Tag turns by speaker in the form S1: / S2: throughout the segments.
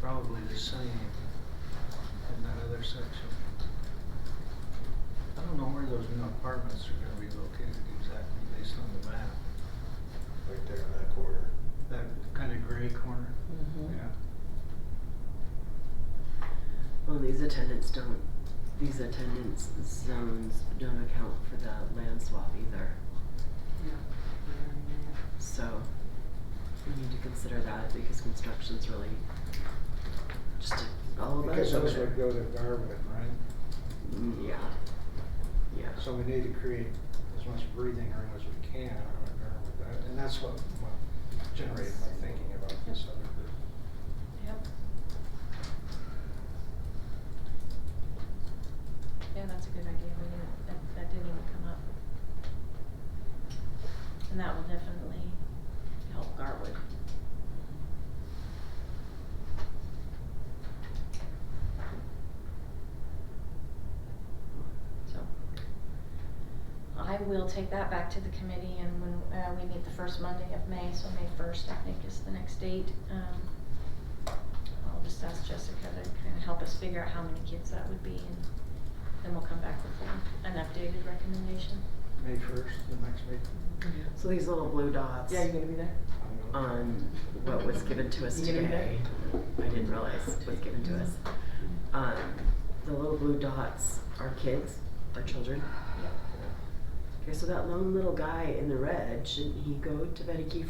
S1: probably the same in that other section. I don't know where those new apartments are gonna be located exactly based on the map,
S2: right there in that corner.
S1: that kind of gray corner.
S3: Hmm.
S4: Mhm.
S5: Well, these attendants don't, these attendance zones don't account for the land swap either,
S4: Yeah.
S5: so we need to consider that because construction's really just all about
S1: Because
S5: it over
S1: those would go
S5: there.
S1: to Garwood, right?
S5: Mm, Yeah, yeah.
S1: So we need to create as much breathing room as we can around Garwood, That- and that's what what generated my thinking about this other group.
S4: Yep. Yeah, that's a good idea, we didn't, that, that didn't even come up. And that will definitely help Garwood. So. I will take that back to the committee and when, uh, we meet the first Monday of May, so May first, I think is the next date, um. I'll just ask Jessica to kinda help us figure out how many kids that would be and then we'll come back with an, an updated recommendation.
S1: May first, the next meeting.
S5: So these little blue dots
S4: gonna be there?
S1: I'm gonna-
S5: on what was given to us
S4: You gonna be there?
S5: today, I didn't realize was given to us. Um, the little blue dots are kids, are children.
S4: Yep.
S5: Okay, so that lone little guy in the red, shouldn't he go to Betty Kiefer?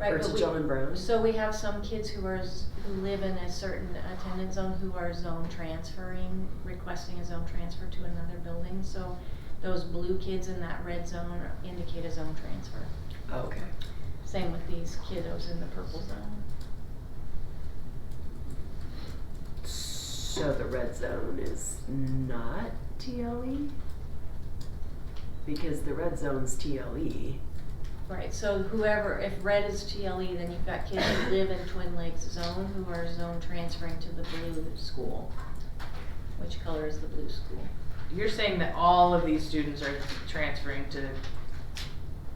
S4: Right,
S5: Or
S4: but
S5: to
S4: we-
S5: John Brown?
S4: So we have some kids who are, s- who live in a certain attendance zone who are zone transferring, requesting a zone transfer to another building, so those blue kids in that red zone indicate a zone transfer.
S5: Oh, Okay.
S4: Same with these kiddos in the purple zone.
S5: So the red zone is not TLE? Because the red zone's E. TLE.
S4: Right, so whoever, if red is TLE, then you've got kids who live in Twin Lakes zone who are zone transferring to the blue school. Which color is the blue school?
S3: You're saying that all of these students are transferring to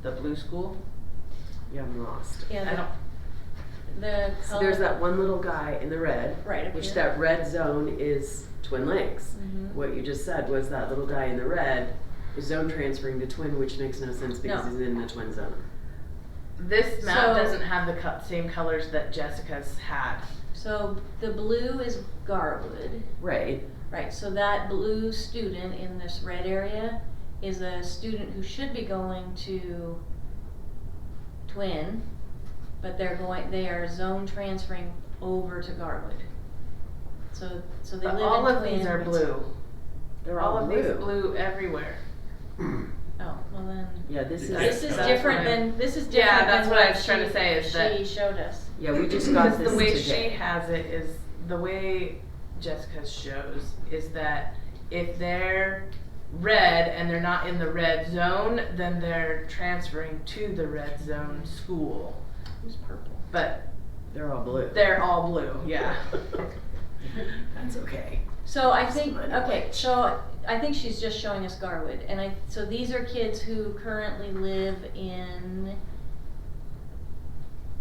S3: the blue school?
S5: Yeah, I'm lost.
S3: I don't,
S4: The
S5: So
S4: color.
S5: there's that one little guy in the red.
S4: um, Right, up
S5: Which
S4: here.
S5: that red zone is Twin Lakes.
S4: Mhm.
S5: What you just said was that little guy in the red is zone transferring to Twin, which makes no sense because
S4: No.
S5: he's in the Twin zone.
S3: this map
S4: So-
S3: doesn't have the co- same colors that Jessica's had.
S4: So the blue is Garwood,
S5: Right,
S4: right, so that blue student in this red area is a student who should be going to Twin, but they're going, they are zone transferring over to Garwood. So, so they live
S3: But
S4: in Twin.
S3: all of these are
S4: but-
S3: blue.
S5: they're
S3: All
S5: all
S3: of
S5: blue.
S3: these blue everywhere.
S4: Oh, well then,
S5: Yeah, this is.
S3: That's-
S4: this is
S3: that's
S4: different
S3: what I-
S4: than, this is
S3: Yeah,
S4: different
S3: that's
S4: than
S3: what I
S4: what
S3: was trying to
S4: she-
S3: say is that-
S4: She showed us,
S5: Yeah, we just got this
S3: the way
S5: today.
S3: she has it is the way Jessica's shows is that if they're red and they're not in the red zone, then they're transferring to the red zone school.
S4: who's purple?
S3: But
S5: They're all blue.
S3: they're all blue, yeah.
S5: That's okay.
S4: So I think,
S5: Mine.
S4: okay, so I think she's just showing us Garwood, and I, so these are kids who currently live in,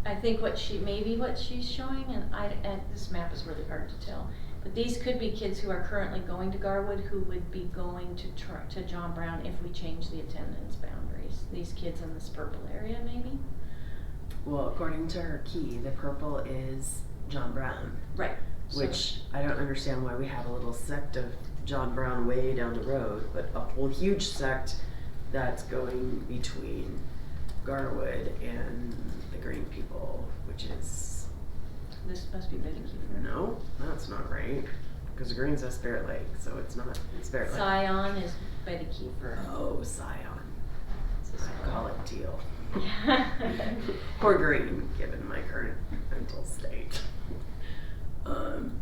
S4: I think what she, maybe what she's showing, and I, and this map is really hard to tell, but these could be kids who are currently going to Garwood who would be going to Tr- to John Brown if we change the attendance boundaries, these kids in this purple area maybe?
S5: Well, according to her key, the purple is John Brown,
S4: Right. so-
S5: which I don't understand why we have a little sect of John Brown way down the road, but a whole huge sect that's going between Garwood and the Green people, which is
S4: This must be Betty Kiefer.
S5: no, that's not right. Because the Green's a Spirit Lake, so it's not it's Spirit Lake.
S4: Scion is Betty Kiefer.
S5: Oh, Scion.
S4: It's this
S5: I
S4: one.
S5: call it teal.
S4: Yeah.
S5: Or green, given my current mental state. Um,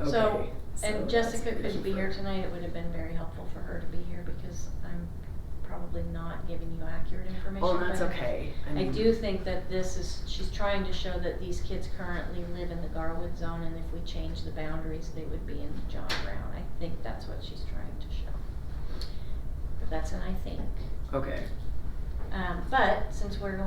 S5: okay.
S4: So, and
S5: that's
S4: Jessica
S5: the reason
S4: could be
S5: for-
S4: here tonight, it would have been very helpful for her to be here because I'm probably not giving you accurate information.
S5: Oh, that's
S4: but
S5: okay.
S4: I
S5: mean,
S4: do think that this is, she's trying to show that these kids currently live in the Garwood zone and if we change the boundaries, they would be in John Brown. I think that's what she's trying to show. But that's an I think.
S5: Okay.
S4: Um, but since we're going